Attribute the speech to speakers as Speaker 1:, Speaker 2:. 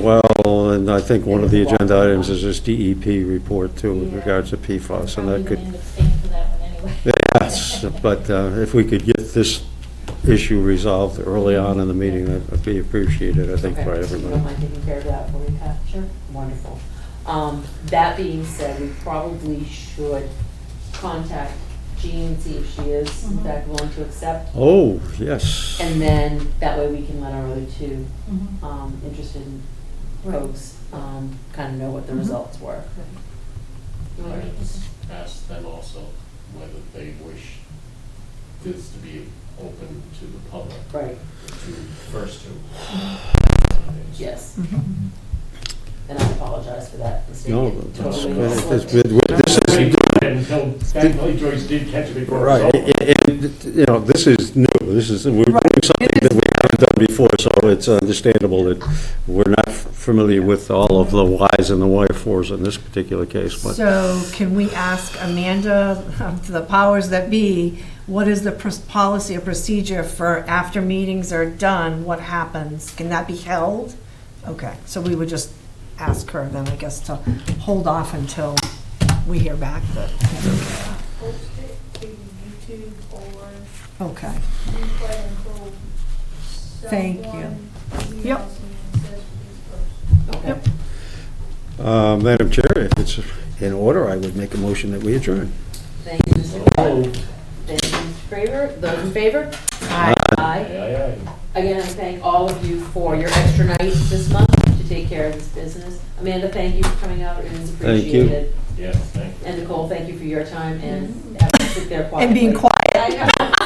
Speaker 1: Well, and I think one of the agenda items is this DEP report too with regards to PFAS and that
Speaker 2: Probably
Speaker 1: could.
Speaker 2: gonna end up staying for that one anyway.
Speaker 1: Yes, but uh, if we could get this issue resolved early on in the meeting, that would be appreciated, I think,
Speaker 3: Okay,
Speaker 1: by
Speaker 3: so You don't
Speaker 1: everybody.
Speaker 3: mind taking care of that for me, Pat?
Speaker 2: Sure.
Speaker 3: Wonderful. Um, That being said, we probably should contact Jean, see if she is in
Speaker 2: Mhm.
Speaker 3: fact willing to accept.
Speaker 1: Oh, yes.
Speaker 3: And then that way we can let our other two
Speaker 2: Mhm.
Speaker 3: um, interested
Speaker 2: Right.
Speaker 3: folks kind of know what the
Speaker 2: Mhm.
Speaker 3: results were.
Speaker 2: You want to read this?
Speaker 4: Ask them also whether they wish this to be open to the public,
Speaker 3: Right,
Speaker 4: to first to.
Speaker 3: yes.
Speaker 2: Mm-hmm.
Speaker 3: And I apologize for that mistake.
Speaker 1: No,
Speaker 3: It
Speaker 1: that's-
Speaker 3: totally
Speaker 1: that's-
Speaker 3: slipped.
Speaker 1: this is,
Speaker 4: Until, thankfully Joyce did catch it before it was
Speaker 1: right,
Speaker 4: over.
Speaker 1: and, you know, this is new, this is, we're doing something that we haven't done before, so it's understandable that we're not familiar with all of the whys and the wherefores in this particular case, but
Speaker 5: So can we ask Amanda, the powers that be, what is the pros- policy or procedure for after meetings are done, what happens? Can that be held? Okay, so we would just ask her then, I guess, to hold off until we hear back, but,
Speaker 6: post it to YouTube or
Speaker 5: okay.
Speaker 6: replay until
Speaker 5: Thank you.
Speaker 6: someone emails me
Speaker 5: Yep.
Speaker 6: and says please post.
Speaker 3: Okay.
Speaker 1: Uh, Madam Chair, if it's in order, I would make a motion that we adjourn.
Speaker 3: Thank you, Mr.
Speaker 4: Oh,
Speaker 3: Cole. Thank you, Mr. Favor. Those in favor? Aye. Aye.
Speaker 4: Aye, aye.
Speaker 3: Again, I thank all of you for your extra night this month to take care of this business. Amanda, thank you for coming out, it is
Speaker 1: Thank you.
Speaker 3: appreciated.
Speaker 4: Yes, thank you.
Speaker 3: And Nicole, thank you for your time and having to sit there quietly.
Speaker 5: Mm-hmm. And being quiet.
Speaker 3: I know.